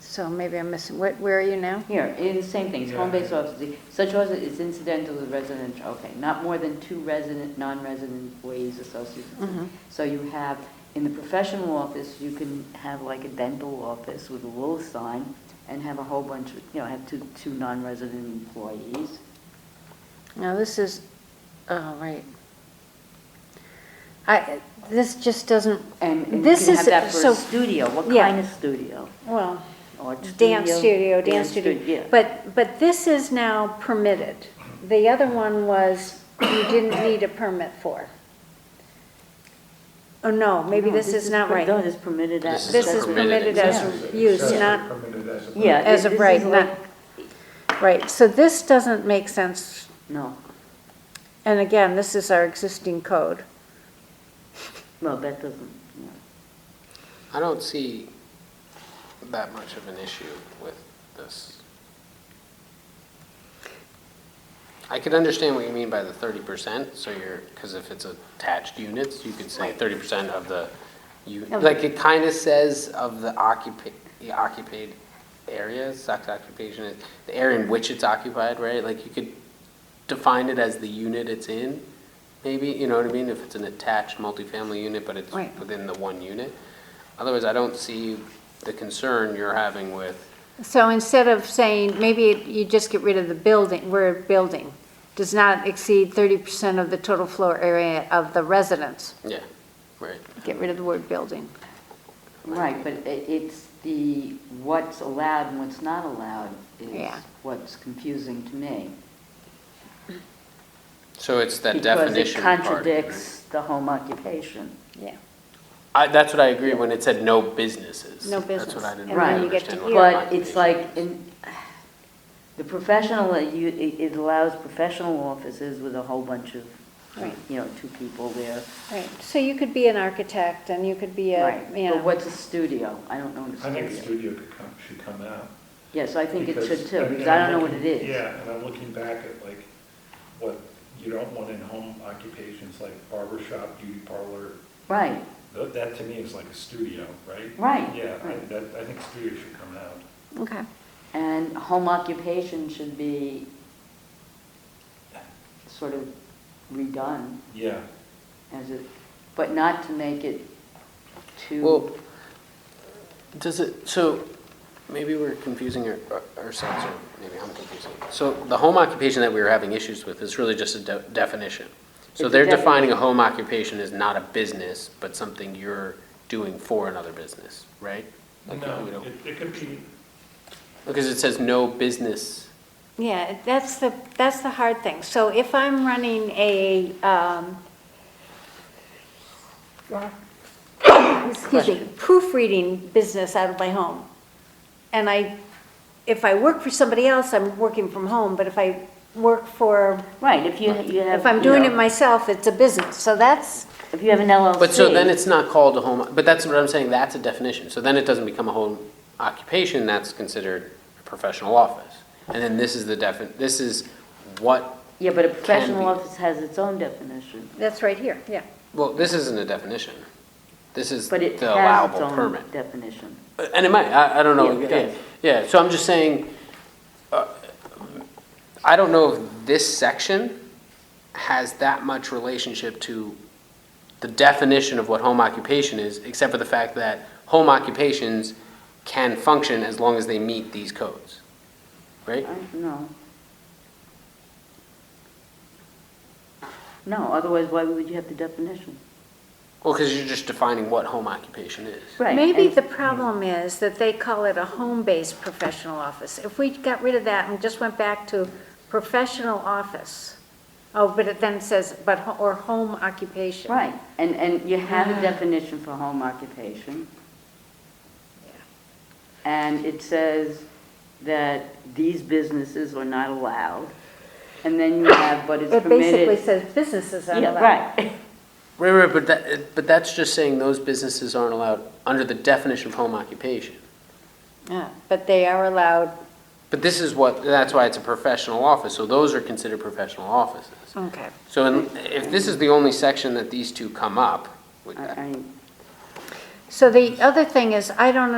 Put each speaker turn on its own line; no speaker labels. so maybe I'm missing, what, where are you now?
Here, in the same thing, it's
Yeah.
home-based offices, such as is incidental to residential, okay, not more than two resident, non-resident ways associated.
Mhm.
So you have, in the professional office, you can have like a dental office with a little sign and have a whole bunch, of you know, have two, two non-resident employees.
Now, this is, oh, right. I, this just doesn't,
And and you
This
can
is-
have that for
so-
a studio, what
yeah.
kind of studio?
well,
Art
dance studio, dance
yeah.
studio. But, but this is now permitted. The other one was, you didn't need a permit for. Oh, no, maybe
No,
this is not
per-
right.
No, this is permitted as.
This is permitted as
Yeah.
a use,
Accessory
not
permitted as a-
Yeah.
as
thi-
of
this
right,
is
not,
like-
right, so this doesn't make sense,
No,
and again, this is our existing code.
no, that doesn't, no.
I don't see that much of an issue with this. I could understand what you mean by the thirty percent, so you're, because if it's attached units, you could say thirty percent of the, you,
Of-
like, it kind of says of the occupa, the occupied areas, oc- occupation, the area in which it's occupied, right? Like, you could define it as the unit it's in, maybe, you know what I mean? If it's an attached multifamily unit, but it's
Right.
within the one unit. Otherwise, I don't see the concern you're having with,
So instead of saying, maybe it- you just get rid of the building, where building does not exceed thirty percent of the total floor area of the residence,
yeah, right.
get rid of the word building.
Right, but i- it's the, what's allowed and what's not allowed is
Yeah.
what's confusing to me.
So it's that
Because it
definition part.
contradicts the home occupation.
Yeah.
I, that's what I agree when it said no businesses.
No
That's
business.
what I didn't
And then
really
you
get to
understand.
hear
what
But it's
occupation
like,
is.
in, the professional, uh, you, it it allows professional offices with a whole bunch of,
Right.
you know, two people there.
Right, so you could be an architect and you could be a,
Right,
you
but
know,
what's a studio? I don't know what a
I think
studio.
studio could come, should come out.
Yes, I think it should
Because,
too,
mean,
because I don't know
I'm
what it is.
looking- Yeah, and I'm looking back at like what you don't want in home occupations like barber shop, beauty parlor.
Right,
Tho- That to me is like a studio, right?
Right,
Yeah, I,
right.
that, I think studio should come out.
okay.
and home occupation should be sort of redone.
Yeah,
as it, but not to make it
Well,
too,
does it, so maybe we're confusing our- ourselves, or maybe I'm confusing. So the home occupation that we were having issues with is really just a de- definition. So
It's a
they're defining a home occupation as not a business, but something you're doing for another business, right? Like, we
no,
don't-
it, it could be,
Because it says no business,
Yeah, that's the, that's the hard thing. So if I'm running a, um, excuse me,
Question.
proofreading business out of my home, and I, if I work for somebody else, I'm working from home, but if I work for,
right, if you, you have.
if I'm
you
doing
know,
it myself, it's a business. So that's,
If you have an LLC.
but so then it's not called a home, but that's what I'm saying, that's a definition. So then it doesn't become a home occupation, that's considered a professional office. And then this is the defin, this is what
Yeah, but a professional
be.
office has its own definition.
that's right here, yeah.
Well, this isn't a definition. This is
But it
the
has its
allowable
own
permit.
definition.
And it might, I, I don't know.
Yeah, it
Yeah, Yeah, so I'm just saying, uh, I don't know if this section has that much relationship to the definition of what home occupation is, except for the fact that home occupations can function as long as they meet these codes, right?
I- No. No, otherwise why would you have the definition?
Well, because you're just defining what home occupation is.
Right.
Maybe
and-
the problem is that they call it a home-based professional office. If we got rid of that and just went back to professional office, oh, but it then says, but, ho- or home occupation.
Right, and, and you have a definition for home occupation. And it says that these businesses are not allowed. And then you have, but it's
It basically
permitted.
says businesses are
Yeah,
allowed.
right.
Right, right, but that, but that's just saying those businesses aren't allowed under the definition of home occupation.
Yeah, But they are allowed,
But this is what, that's why it's a professional office, so those are considered professional offices.
okay.
So in- if this is the only section that these two come up,
I-
with
I-
So the other thing is, I don't